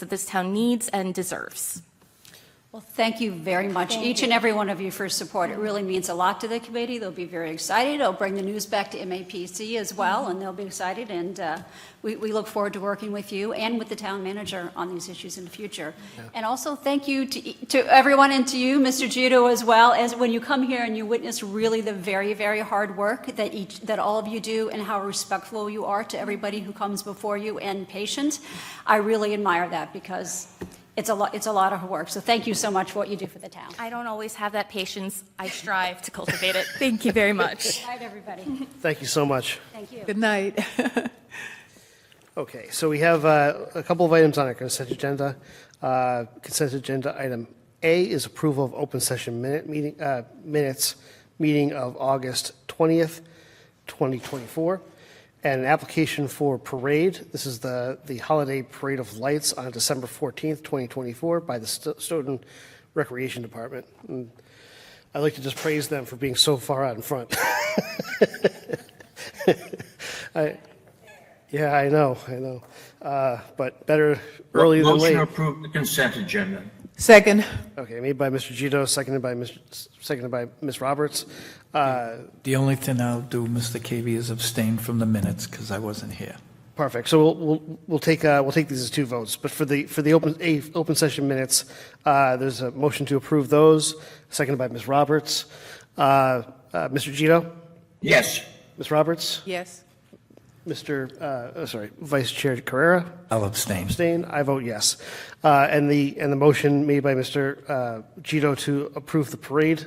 that this town needs and deserves. Well, thank you very much, each and every one of you for your support. It really means a lot to the committee. They'll be very excited. It'll bring the news back to MAPC as well, and they'll be excited. And uh, we we look forward to working with you and with the town manager on these issues in the future. And also, thank you to e- to everyone and to you, Mr. Giudo, as well, as when you come here and you witness really the very, very hard work that each, that all of you do and how respectful you are to everybody who comes before you and patient. I really admire that because it's a lot, it's a lot of work, so thank you so much for what you do for the town. I don't always have that patience. I strive to cultivate it. Thank you very much. All right, everybody, Thank you so much. thank you. Good night. Okay, so we have uh, a couple of items on our consent agenda. Uh, Consent agenda item A is approval of open session minute, meeting, uh, minutes, meeting of August 20th, 2024, and an application for parade. This is the, the holiday parade of lights on December 14th, 2024 by the Sto- Stoughton Recreation Department. And I'd like to just praise them for being so far out in front. Yeah, I know, I know. Uh, But better early than late. Motion to approve the consent agenda. Second, Okay, made by Mr. Gito, seconded by Ms., seconded by Ms. Roberts. Uh, The only thing I'll do, Mr. Cavey, is abstain from the minutes because I wasn't here. Perfect. So we'll, we'll, we'll take, uh, we'll take these as two votes. But for the, for the open, a, open session minutes, uh, there's a motion to approve those, seconded by Ms. Roberts. Uh, uh, Mr. Gito, Yes, Ms. Roberts, yes. Mr., uh, oh, sorry, Vice Chair Carrera, I'll abstain. abstain, I vote yes. Uh, and the, and the motion made by Mr. uh, Gito to approve the parade,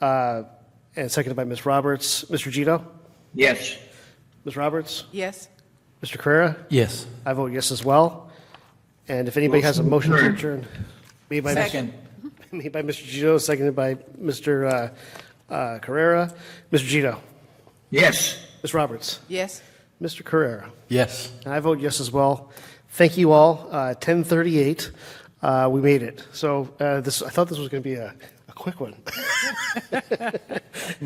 uh, and seconded by Ms. Roberts. Mr. Gito, yes, Ms. Roberts? Yes. Mr. Carrera? Yes. I vote yes as well. And if anybody has a motion Motion to to adjourn, made by, Second. made by Mr. Gito, seconded by Mr. uh, uh, Carrera. Mr. Gito? yes. Ms. Roberts? Yes. Mr. Carrera? Yes. And I vote yes as well. Thank you all. Uh, 10:38, uh, we made it. So uh, this, I thought this was going to be a, a quick one. That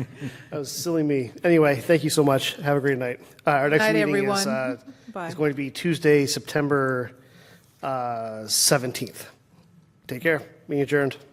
was silly me. Anyway, thank you so much. Have a great night. Uh, Our next Night, meeting is, everyone. uh, Bye. is going to be Tuesday, September uh, 17th. Take care. Meeting adjourned.